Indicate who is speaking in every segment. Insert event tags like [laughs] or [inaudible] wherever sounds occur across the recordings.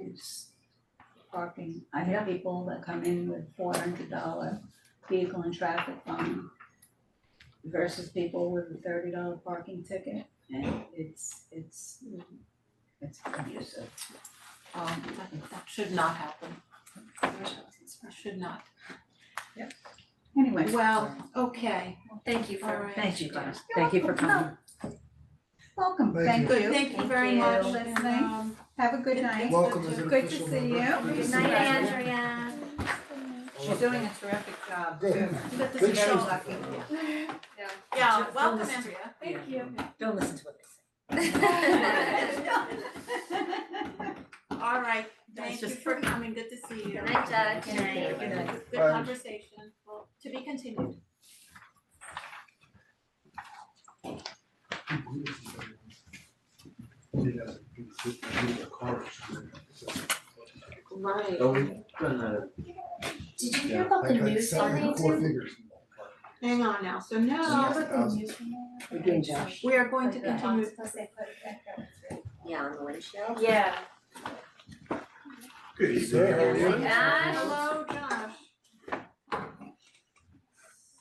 Speaker 1: use parking. I have people that come in with four hundred dollar vehicle and traffic fine versus people with a thirty dollar parking ticket, and it's, it's, it's abusive.
Speaker 2: Um, that, that should not happen. That should not.
Speaker 1: Anyway,
Speaker 2: Well, okay,
Speaker 3: Well, Thank you
Speaker 2: All
Speaker 3: for,
Speaker 2: right.
Speaker 3: thank you guys,
Speaker 1: You're
Speaker 3: thank you for
Speaker 1: welcome.
Speaker 3: coming.
Speaker 1: welcome,
Speaker 4: Thank
Speaker 1: thank you.
Speaker 2: Oh, thank you
Speaker 3: Thank
Speaker 2: very
Speaker 3: you.
Speaker 2: much.
Speaker 1: Listening.
Speaker 2: and, um,
Speaker 1: Have a good night.
Speaker 4: Welcome as an
Speaker 1: Good to
Speaker 4: official
Speaker 1: see
Speaker 4: member.
Speaker 1: you.
Speaker 4: Good to
Speaker 3: Good
Speaker 4: see
Speaker 3: night,
Speaker 4: you.
Speaker 3: Andrea.
Speaker 1: She's doing a terrific job
Speaker 4: Good.
Speaker 1: too.
Speaker 2: you got this
Speaker 4: Good
Speaker 2: show.
Speaker 1: Very
Speaker 4: show.
Speaker 1: lucky.
Speaker 2: Yeah,
Speaker 3: Just
Speaker 2: welcome,
Speaker 3: listen.
Speaker 2: Andrea.
Speaker 3: Thank
Speaker 2: you.
Speaker 3: Don't listen to what
Speaker 2: All right,
Speaker 3: That's
Speaker 2: thank you
Speaker 3: just-
Speaker 2: for coming, good to see you.
Speaker 3: [laughs] Good night, Doug. Good night. [laughs]
Speaker 2: Good
Speaker 5: [laughs]
Speaker 2: night. Good
Speaker 4: Bye.
Speaker 2: conversation, well, to be continued.
Speaker 3: they say.
Speaker 4: Oh.
Speaker 6: Are we gonna,
Speaker 3: Did you hear about the news on YouTube?
Speaker 2: Hang on now, so now,
Speaker 7: We're doing Josh.
Speaker 2: we are going to continue,
Speaker 3: Yeah, on the windshield.
Speaker 7: Yeah.
Speaker 6: good evening, everyone.
Speaker 3: Josh.
Speaker 2: hello, Josh.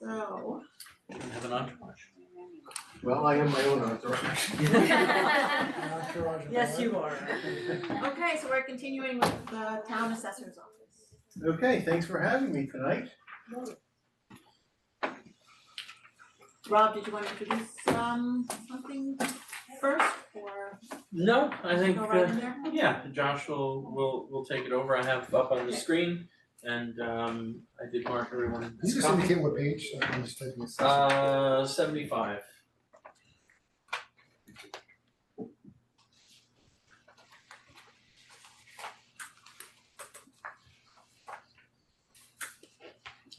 Speaker 2: So,
Speaker 6: Have an entourage. Well, I am my own entourage. [laughs]
Speaker 3: Yes, you are. [laughs]
Speaker 2: okay, so we're continuing with the town assessor's office.
Speaker 6: Okay, thanks for having me tonight.
Speaker 2: Rob, did you wanna introduce um something first or
Speaker 8: No, I think,
Speaker 2: go right
Speaker 8: uh,
Speaker 2: in there?
Speaker 8: yeah, Josh will, will, will take it over, I have up on the screen, and, um, I did mark everyone.
Speaker 4: Can you just indicate what page, I can just type this.
Speaker 8: Uh, seventy-five.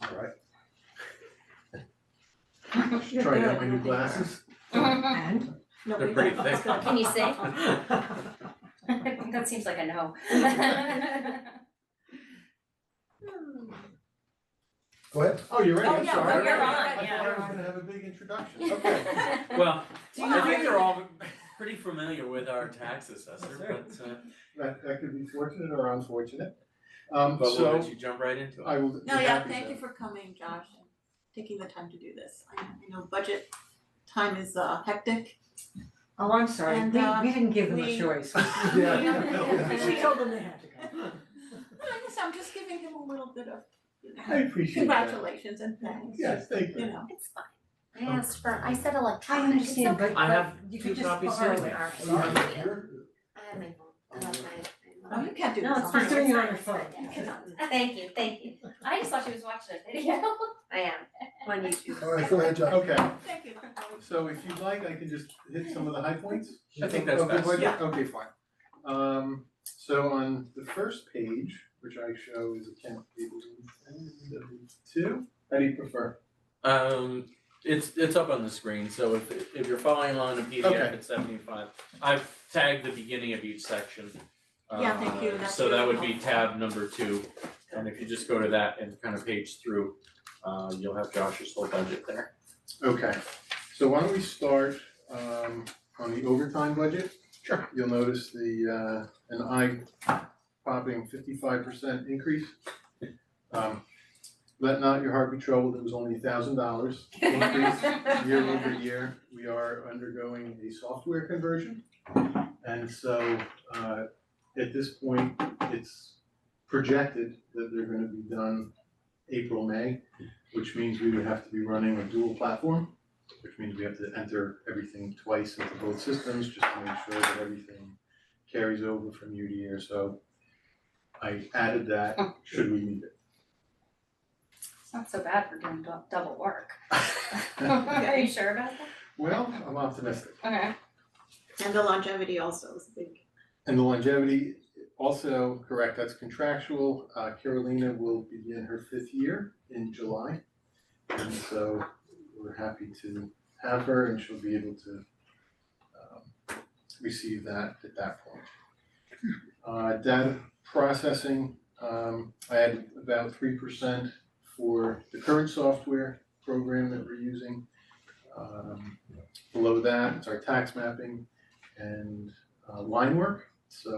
Speaker 6: Alright.
Speaker 1: uh,
Speaker 6: Trying out my new glasses.
Speaker 3: And?
Speaker 2: No,
Speaker 8: They're
Speaker 2: we
Speaker 8: pretty
Speaker 2: don't.
Speaker 8: thick.
Speaker 3: Can you see? That seems like a no.
Speaker 2: Hmm.
Speaker 4: Go ahead.
Speaker 6: Oh, you're ready,
Speaker 2: Oh,
Speaker 6: I'm
Speaker 2: yeah,
Speaker 6: sorry.
Speaker 3: well, you're on,
Speaker 6: I
Speaker 3: yeah.
Speaker 6: thought I was gonna have a big introduction, okay.
Speaker 8: [laughs] Well,
Speaker 2: Do you
Speaker 8: I think
Speaker 2: know,
Speaker 8: they're all pretty familiar with our tax assessor, but, uh,
Speaker 6: That that could be fortunate or unfortunate. Um,
Speaker 8: but we'll
Speaker 6: so
Speaker 8: let you jump right into it.
Speaker 6: I will be
Speaker 2: no, yeah,
Speaker 6: happy
Speaker 2: thank
Speaker 6: to-
Speaker 2: you for coming, Josh, and taking the time to do this. I I know budget time is uh hectic.
Speaker 3: Oh, I'm sorry,
Speaker 2: And,
Speaker 3: we,
Speaker 2: uh,
Speaker 3: we didn't give them a
Speaker 2: we-
Speaker 3: [laughs] choice.
Speaker 6: Yeah,
Speaker 3: [laughs]
Speaker 6: no,
Speaker 3: We told them they had to come.
Speaker 2: No, I guess I'm just giving him a little bit of, you know,
Speaker 6: I appreciate that.
Speaker 2: congratulations and thanks, you know.
Speaker 6: Yes, thank you.
Speaker 3: It's fine. I asked for, I said electronic.
Speaker 1: I understand,
Speaker 3: but
Speaker 8: I have
Speaker 3: you
Speaker 8: two
Speaker 3: could just
Speaker 8: copies
Speaker 3: borrow
Speaker 8: sitting
Speaker 3: it.
Speaker 8: there.
Speaker 6: Oh, you have
Speaker 3: Yeah.
Speaker 6: your-
Speaker 3: I have my phone, I love my-
Speaker 2: Oh, you can't do this
Speaker 3: No,
Speaker 2: on
Speaker 3: it's fine.
Speaker 2: your own.
Speaker 3: doing it on your phone.
Speaker 2: You cannot.
Speaker 3: Thank you, thank you.
Speaker 5: I just thought she was watching a video.
Speaker 3: I am, on YouTube.
Speaker 4: All right, go ahead, Josh.
Speaker 6: Okay.
Speaker 2: Thank you.
Speaker 6: So if you'd like, I can just hit some of the high points?
Speaker 8: I think that's
Speaker 6: Of the
Speaker 8: best,
Speaker 6: budget?
Speaker 8: yeah.
Speaker 6: Okay, fine. Um, so on the first page, which I show is account table two, how do you prefer?
Speaker 8: Um, it's, it's up on the screen, so if, if you're following along in PDF,
Speaker 6: Okay.
Speaker 8: it's seventy-five. I've tagged the beginning of each section.
Speaker 2: Yeah, thank you,
Speaker 8: uh,
Speaker 2: that's
Speaker 8: So that
Speaker 2: really
Speaker 8: would be
Speaker 2: helpful.
Speaker 8: tab number two, and if you just go to that and kind of page through, uh, you'll have Josh's whole budget there.
Speaker 6: Okay, so why don't we start, um, on the overtime budget? Sure. You'll notice the, uh, an eye popping fifty-five percent increase. Um, let not your heart be troubled, it was only a thousand dollars increase. year over year, we are undergoing a software conversion. And so uh at this point, it's projected that they're gonna be done April, May, which means we would have to be running a dual platform, which means we have to enter everything twice into both systems just to make sure that everything carries over from year to year, so I added that, should we need
Speaker 5: It's not so bad for doing dou- double work. [laughs]
Speaker 6: it.
Speaker 5: Are you sure about that?
Speaker 6: [laughs] Well, I'm optimistic.
Speaker 5: Okay.
Speaker 2: And the longevity also is big.
Speaker 6: And the longevity, also correct, that's contractual. Uh, Carolina will begin her fifth year in July. And so we're happy to have her and she'll be able to um, receive that at that point. Uh, data processing, um, I added about three percent for the current software program that we're using. Um, below that, it's our tax mapping and uh, line work. So